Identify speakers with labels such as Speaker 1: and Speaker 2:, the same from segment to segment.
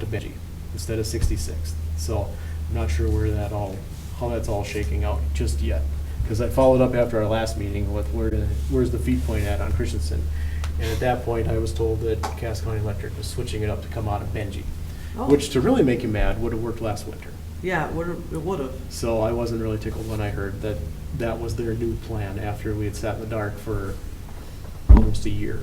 Speaker 1: to Benji instead of Sixty-Sixth. So I'm not sure where that all, how that's all shaking out just yet. Because I followed up after our last meeting with where, the- where's the feed point at on Christensen? And at that point, I was told that Cass County Electric was switching it up to come out of Benji,
Speaker 2: Oh.
Speaker 1: which to really make you mad, would have worked last winter.
Speaker 2: Yeah, it would've, it would've.
Speaker 1: So I wasn't really tickled when I heard that that was their new plan after we had sat in the dark for almost a year,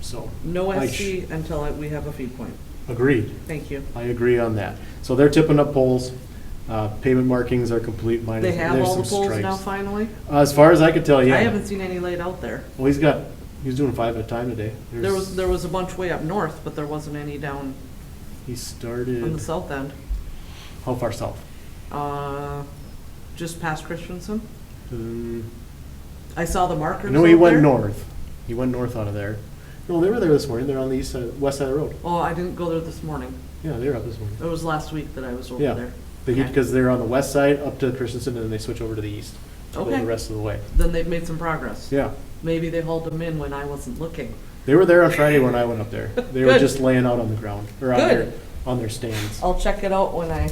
Speaker 1: so.
Speaker 2: No
Speaker 1: I
Speaker 2: SC until I- we have a feed point.
Speaker 1: Agreed.
Speaker 2: Thank you.
Speaker 1: I agree on that. So they're tipping up poles. Uh, Pavement markings are complete
Speaker 2: They
Speaker 1: minus,
Speaker 2: have
Speaker 1: there's
Speaker 2: all
Speaker 1: some
Speaker 2: the poles now
Speaker 1: stripes. Uh,
Speaker 2: finally?
Speaker 1: As far as I could tell,
Speaker 2: I
Speaker 1: yeah.
Speaker 2: haven't seen any laid out there.
Speaker 1: Well, he's got, he's doing five at a time today.
Speaker 2: There was, there was a bunch way up north, but there wasn't any down
Speaker 1: He
Speaker 2: on the
Speaker 1: started,
Speaker 2: south end.
Speaker 1: how far south?
Speaker 2: Uh, just past Christensen.
Speaker 1: Um,
Speaker 2: I saw the markers
Speaker 1: I
Speaker 2: out
Speaker 1: know he went
Speaker 2: there.
Speaker 1: north. He went north out of there. No, they were there this morning. They're on the east side, west side of the road.
Speaker 2: Oh, I didn't go there this morning.
Speaker 1: Yeah, they were up this morning.
Speaker 2: It was last week that I was over
Speaker 1: Yeah.
Speaker 2: there. Okay.
Speaker 1: Because they're on the west side up to Christensen and then they switch over to the east. to go
Speaker 2: Okay.
Speaker 1: The rest of the way.
Speaker 2: Then they've made some progress.
Speaker 1: Yeah.
Speaker 2: Maybe they hauled them in when I wasn't looking.
Speaker 1: They were there on Friday when I went up there. They were
Speaker 2: Good.
Speaker 1: just laying out on the ground, or on their,
Speaker 2: Good.
Speaker 1: on their stands.
Speaker 2: I'll check it out when I,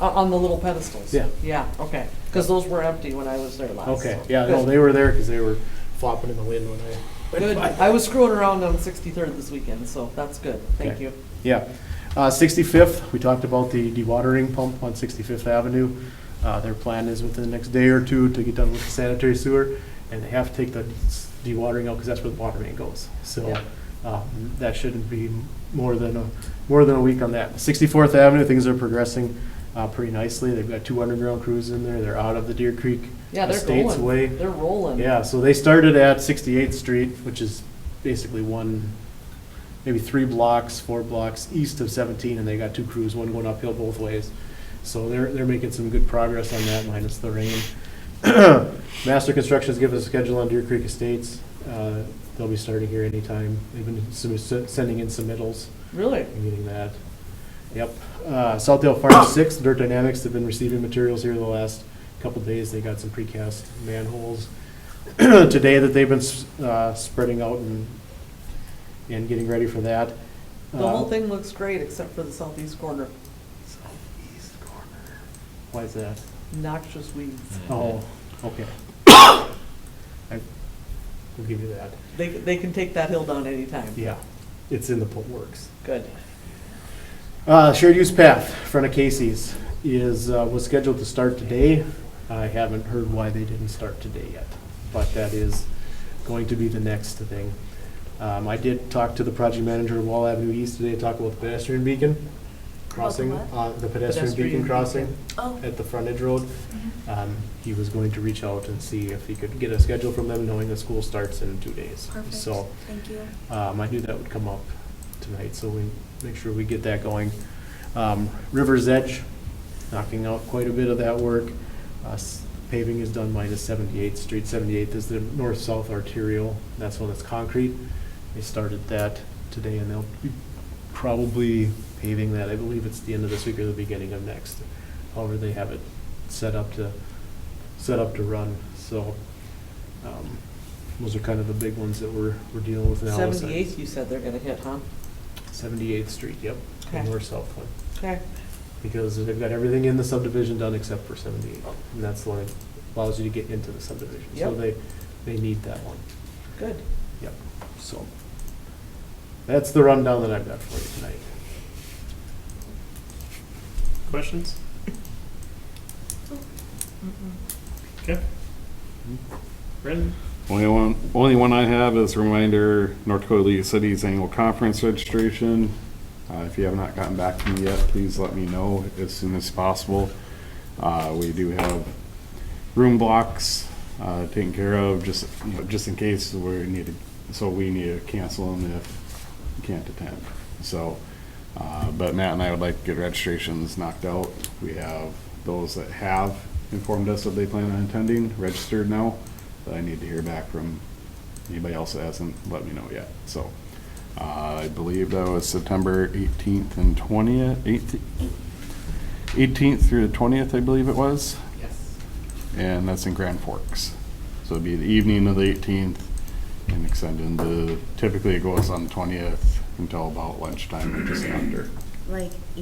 Speaker 2: uh, on the little pedestals.
Speaker 1: Yeah.
Speaker 2: Yeah, okay, because those were empty when I was there last.
Speaker 1: Okay,
Speaker 2: so.
Speaker 1: yeah, no, they were there because they were flopping in the wind when I. went
Speaker 2: Good,
Speaker 1: by.
Speaker 2: I was screwing around on Sixty-third this weekend, so that's good, thank
Speaker 1: Okay.
Speaker 2: you.
Speaker 1: Yeah. Uh, 65th, we talked about the dewatering pump on 65th Avenue. Uh, Their plan is within the next day or two to get done with the sanitary sewer, and they have to take the s- dewatering out because that's where the water main goes. So
Speaker 2: Yeah.
Speaker 1: uh, that shouldn't be more than, a more than a week on that. 64th Avenue, things are progressing uh, pretty nicely. They've got two underground crews in there. They're out of the Deer Creek
Speaker 2: Yeah, they're
Speaker 1: Estates Way.
Speaker 2: rolling, they're rolling.
Speaker 1: Yeah, so they started at 68th Street, which is basically one, maybe three blocks, four blocks east of 17, and they got two crews, one going uphill both ways. So they're, they're making some good progress on that, minus the rain. Master Construction's given us a schedule on Deer Creek Estates. Uh, They'll be starting here anytime. They've been sum- sending in submittals
Speaker 2: Really?
Speaker 1: and getting that. Yep. Uh, Southdale Farm Six, Dirt Dynamics have been receiving materials here the last couple days. They got some precast manholes today that they've been s- uh, spreading out and, and getting ready for that.
Speaker 2: The
Speaker 1: Uh,
Speaker 2: whole thing looks great except for the southeast corner,
Speaker 1: Southeast corner. Why is that?
Speaker 2: noxious weeds.
Speaker 1: Oh, okay. I will give you that.
Speaker 2: They, they can take that hill down anytime.
Speaker 1: Yeah, it's in the put works.
Speaker 2: Good.
Speaker 1: Uh, shared use path, in front of Casey's, is, uh, was scheduled to start today. I haven't heard why they didn't start today yet, but that is going to be the next thing. Um, I did talk to the project manager of Wall Avenue East today, talk about the pedestrian beacon crossing, uh, the pedestrian
Speaker 2: Pedestrian
Speaker 1: beacon
Speaker 2: beacon.
Speaker 1: crossing
Speaker 3: Oh,
Speaker 1: at the frontage road. Um, he was going to reach out and see if he could get a schedule from them, knowing the school starts in two days.
Speaker 3: perfect.
Speaker 1: So,
Speaker 3: Thank you.
Speaker 1: um, I knew that would come up tonight, so we make sure we get that going. Um, River's Edge, knocking out quite a bit of that work. Uh, s- Paving is done minus 78th Street. 78th is the north-south arterial. That's one that's concrete. They started that today, and they'll be probably paving that. I believe it's the end of this week or the beginning of next. However, they have it set up to, set up to run, so. um, Those are kind of the big ones that we're, we're dealing with now.
Speaker 2: Seventy-eighth, you said they're gonna hit, huh?
Speaker 1: 78th Street, yep, the
Speaker 2: Okay.
Speaker 1: north-south one.
Speaker 2: Okay,
Speaker 1: Because they've got everything in the subdivision done except for 78, and that's the one that allows you to get into the subdivision. So
Speaker 2: Yep.
Speaker 1: they, they need that one,
Speaker 2: good.
Speaker 1: yep, so. That's the rundown that I've got for you tonight.
Speaker 4: Questions? Okay.
Speaker 1: Hmm?
Speaker 4: Brendan?
Speaker 5: Only one, only one I have is a reminder, North Dakota League of Cities Annual Conference registration. Uh, if you have not gotten back to me yet, please let me know as soon as possible. Uh, we do have room blocks, uh, taken care of, just, you know, just in case we need to, so we need to cancel them if you can't attend. So, uh, but Matt and I would like to get registrations knocked out. We have those that have informed us that they plan on attending, registered now. But I need to hear back from anybody else that hasn't let me know yet, so. Uh, I believe that was September eighteenth and twentieth, eighteenth through the twentieth, I believe it was,
Speaker 2: Yes.
Speaker 5: and that's in Grand Forks. So it'd be the evening of the eighteenth and extend into, typically it goes on the twentieth until about lunchtime or just after.
Speaker 3: Like